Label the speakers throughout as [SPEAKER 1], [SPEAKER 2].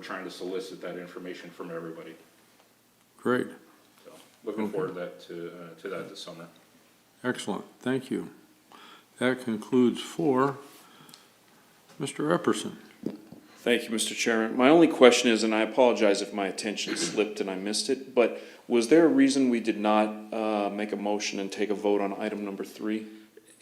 [SPEAKER 1] trying to solicit that information from everybody.
[SPEAKER 2] Great,
[SPEAKER 1] So Looking forward to that, to, uh, to that this summer.
[SPEAKER 2] excellent, thank you. That concludes four. Mr. Epperson,
[SPEAKER 3] Thank you, Mr. Chairman. My only question is, and I apologize if my attention slipped and I missed it, but was there a reason we did not uh, make a motion and take a vote on item number three?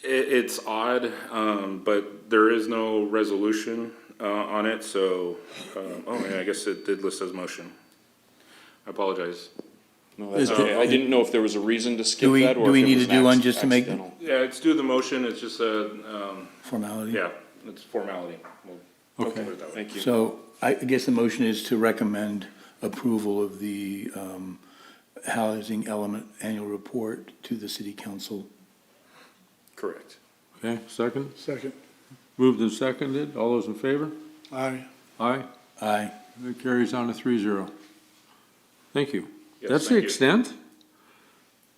[SPEAKER 1] It, it's odd, um, but there is no resolution, uh, on it, so, um, oh, yeah, I guess it did list as motion. I apologize.
[SPEAKER 3] No, that's
[SPEAKER 4] Is
[SPEAKER 3] okay.
[SPEAKER 4] there-
[SPEAKER 3] I didn't know if there was a reason to skip
[SPEAKER 4] Do we-
[SPEAKER 3] that or
[SPEAKER 4] do we
[SPEAKER 3] if it
[SPEAKER 4] need
[SPEAKER 3] was
[SPEAKER 4] to do one
[SPEAKER 3] an
[SPEAKER 4] just to make-
[SPEAKER 3] accidental.
[SPEAKER 1] Yeah, it's due the motion, it's just a, um,
[SPEAKER 4] formality.
[SPEAKER 1] yeah, it's formality. We'll- we'll
[SPEAKER 2] Okay.
[SPEAKER 1] put it that way.
[SPEAKER 3] Thank you.
[SPEAKER 4] So I guess the motion is to recommend approval of the um, housing element annual report to the city council.
[SPEAKER 1] Correct.
[SPEAKER 2] okay, second?
[SPEAKER 5] Second.
[SPEAKER 2] Moved and seconded, all those in favor?
[SPEAKER 5] Aye.
[SPEAKER 2] Aye,
[SPEAKER 4] Aye.
[SPEAKER 2] that carries on to three zero. Thank you.
[SPEAKER 1] Yes,
[SPEAKER 2] That's the
[SPEAKER 1] thank you.
[SPEAKER 2] extent?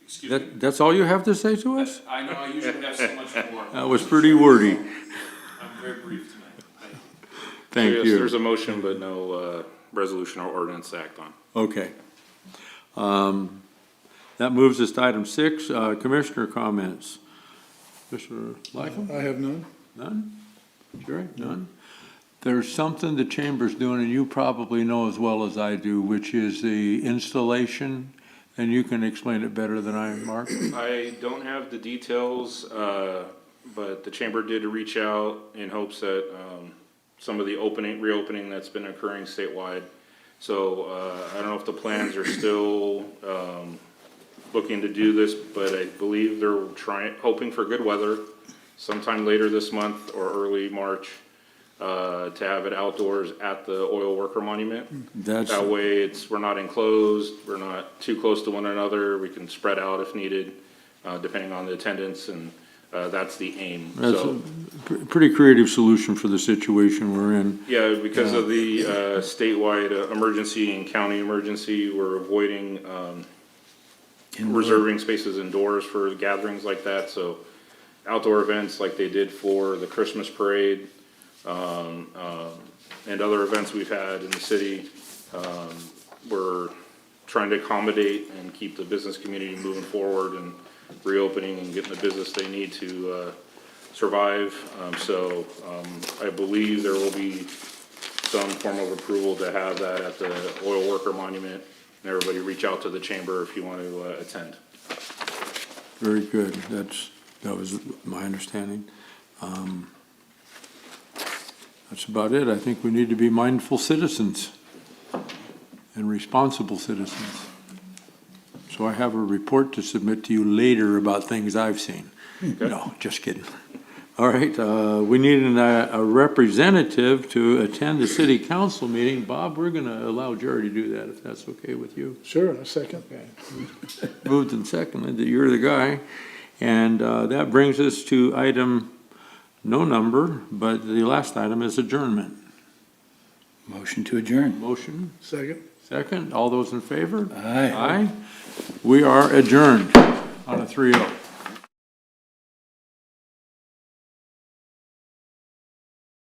[SPEAKER 6] Excuse me.
[SPEAKER 2] That, that's all you have to say to us?
[SPEAKER 6] I know I usually have so much more.
[SPEAKER 2] That was pretty wordy,
[SPEAKER 6] I'm very brief tonight. Thank you.
[SPEAKER 2] thank
[SPEAKER 1] Yes,
[SPEAKER 2] you.
[SPEAKER 1] There's a motion, but no, uh, resolution or ordinance to act on.
[SPEAKER 2] Okay. Um, That moves us to item six, uh, commissioner comments. Mr. Lycum?
[SPEAKER 5] I have none.
[SPEAKER 2] None? Jerry, none? There's something the chamber's doing, and you probably know as well as I do, which is the installation, and you can explain it better than I, Mark.
[SPEAKER 1] I don't have the details, uh, but the chamber did reach out in hopes that um, some of the opening, reopening that's been occurring statewide. So uh, I don't know if the plans are still um, looking to do this, but I believe they're trying, hoping for good weather sometime later this month or early March uh, to have it outdoors at the oil worker monument.
[SPEAKER 2] That's,
[SPEAKER 1] That way, it's, we're not enclosed, we're not too close to one another, we can spread out if needed, uh, depending on the attendance, and, uh, that's the aim,
[SPEAKER 2] that's a
[SPEAKER 1] so.
[SPEAKER 2] pr- pretty creative solution for the situation we're in.
[SPEAKER 1] Yeah, because of the, uh, statewide uh, emergency and county emergency, we're avoiding, um, reserving spaces indoors for gatherings like that, so outdoor events like they did for the Christmas parade, um, um, and other events we've had in the city, um, we're trying to accommodate and keep the business community moving forward and reopening and getting the business they need to, uh, survive. Um, so, um, I believe there will be some form of approval to have that at the oil worker monument. And everybody reach out to the chamber if you want to uh, attend.
[SPEAKER 2] Very good, that's, that was my understanding. Um, That's about it, I think we need to be mindful citizens and responsible citizens. So I have a report to submit to you later about things I've seen. No, just kidding. All right, uh, we need an, uh, a representative to attend the city council meeting. Bob, we're gonna allow Jerry to do that, if that's okay with you
[SPEAKER 5] Sure, a second.
[SPEAKER 2] moved and seconded that you're the guy. And uh, that brings us to item, no number, but the last item is adjournment.
[SPEAKER 4] Motion to adjourn.
[SPEAKER 2] Motion,
[SPEAKER 5] Second.
[SPEAKER 2] second, all those in favor?
[SPEAKER 4] Aye.
[SPEAKER 2] Aye. We are adjourned on a oh. 3-0.